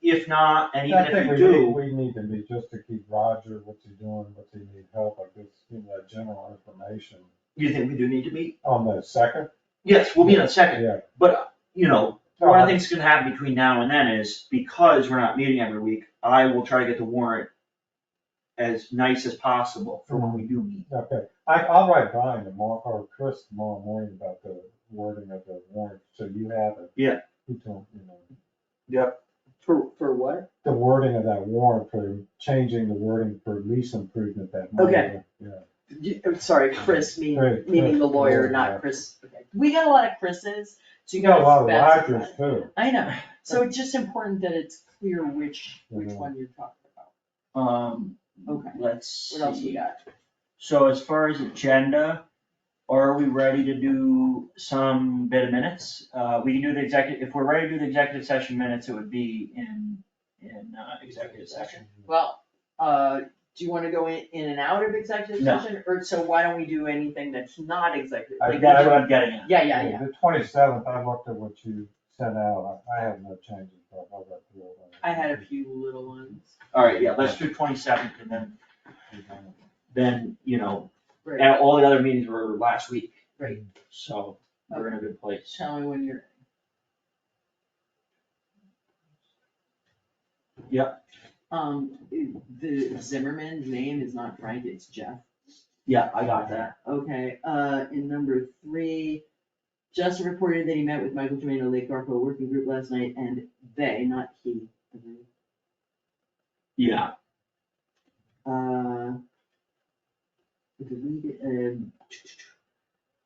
If not, and even I if think you we need, do, we need to be, just to keep Roger, what's he doing, what's he need help, I guess, give him that general information. you think we do need to meet? On the second, Yes, we'll meet in a second, yeah. but, you know, No, One of I- the things that's gonna happen between now and then is, because we're not meeting every week, I will try to get the warrant as nice as possible for when we do meet. Okay, I, I'll write Brian tomorrow, or Chris tomorrow morning about the wording of the warrant, so you have it. Yeah. You don't, you know, For, for what? the wording of that warrant for changing the wording for lease improvement that money. Okay. Yeah. You- I'm sorry, Chris, meaning, Right, meaning the Chris, lawyer, yeah. not Chris. Okay. We got a lot of Chris's, so You you got gotta a lot of specify. Oh, Rogers too. I know, so it's just important that it's clear which, which Mhm. one you're talking about. Um, Okay, let's what else we see. got? So as far as agenda, are we ready to do some bit of minutes? Uh, we can do the executive, if we're ready to do the executive session minutes, it would be in, in, uh, executive session. Well, uh, do you wanna go in, in and out of executive No. session, or so why don't we do anything that's not executive? I got like That's which what one- I'm getting at. Yeah, yeah, yeah, The twenty-seventh, I looked at what you sent out, I, I have no changes, but I'll go through it. I had a few little ones. Alright, yeah, let's do twenty seventh and then, then, you know, Right, and all the other meetings were last week, right, so we're in a good place. tell me when you're, Yep, um, the Zimmerman's name is not Frank, it's Jeff. yeah, I got that. Okay, uh, in number three, Justin reported that he met with Michael Tremaine, Lake Garfield Working Group last night, and they, not he, agreed. Yeah, Uh, delete, um,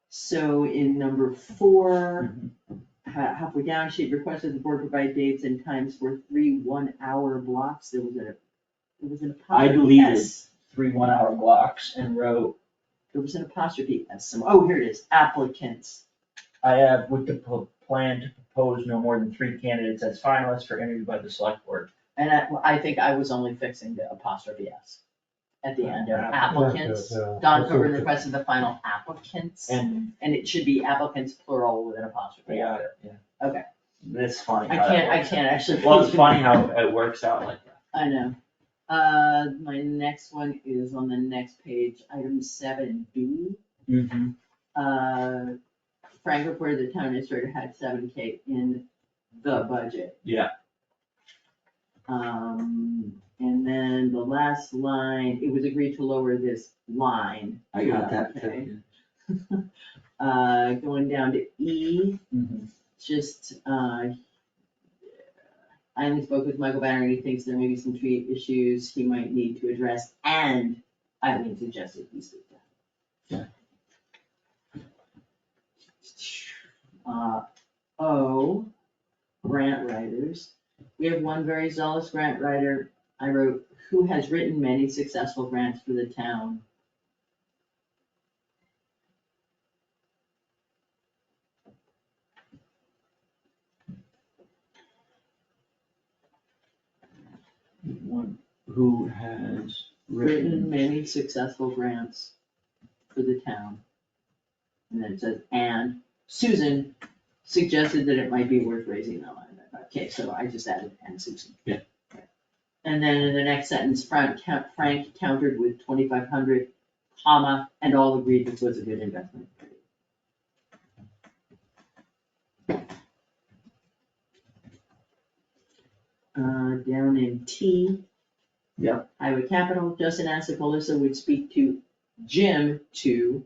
So in number four, Mm-hmm. ha- halfway down, she had requested the board provide dates and times for three one-hour blocks, there was a, there was an I apostrophe deleted. S. Three one hour blocks and wrote, There was an apostrophe S, some, oh, here it is, applicants, I have with the po- plan to propose no more than three candidates as finalists for interview by the select board. and I, I think I was only fixing the apostrophe S at the end, Yeah. applicants. Yeah, yeah. Don Coburn requested the final applicants, And, and it should be applicants plural with an apostrophe. yeah, yeah. Okay. It's funny I how that can't, I works. can't actually. well, it's funny how it works out like that. I know. Uh, my next one is on the next page, item seven B. Mhm. Uh, Frank reported the town administrator had seven K in the budget. Yeah. Um, and then the last line, it was agreed to lower this line. I got that to 11K. too. Uh, going down to E. Mhm. just, uh, I only spoke with Michael Banner, and he thinks there may be some tree issues he might need to address, and Eileen suggested he speak to. him. Uh, O, grant writers. We have one very zealous grant writer, I wrote, who has written many successful grants for the town. One who has written many successful grants for the town. And then it says, and Susan suggested that it might be worth raising that line. Okay, so I just added and Susan. Yeah. And then in the next sentence, Frank, count- Frank countered with twenty-five hundred, comma, and all agreed this was a good investment. Uh, down in T. Iowa Capital, Justin asked if Melissa would speak to Jim to.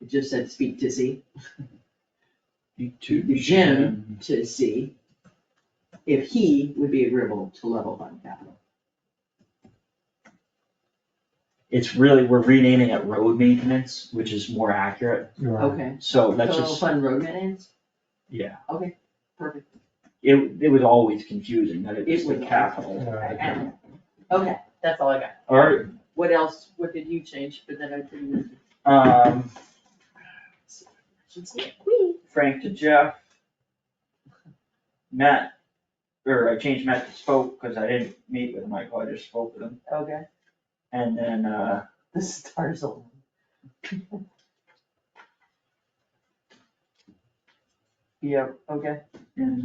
It just said speak to Z, To Jim to C, if he would be agreeable to level fund capital. It's really, we're renaming it road maintenance, which is more accurate, You're right. Okay, so that's level just, fund road maintenance, yeah, perfect, it, it was always confusing, that it was It the was. capital. Yeah. And- okay, that's all I got. Alright, What else, what did you change, but then I didn't. um, Should say it. Whee! Frank to Jeff. Matt, or I changed Matt to spoke, cause I didn't meet with Michael, I just spoke with him, Okay, and then, uh, the stars align. yeah, Okay. and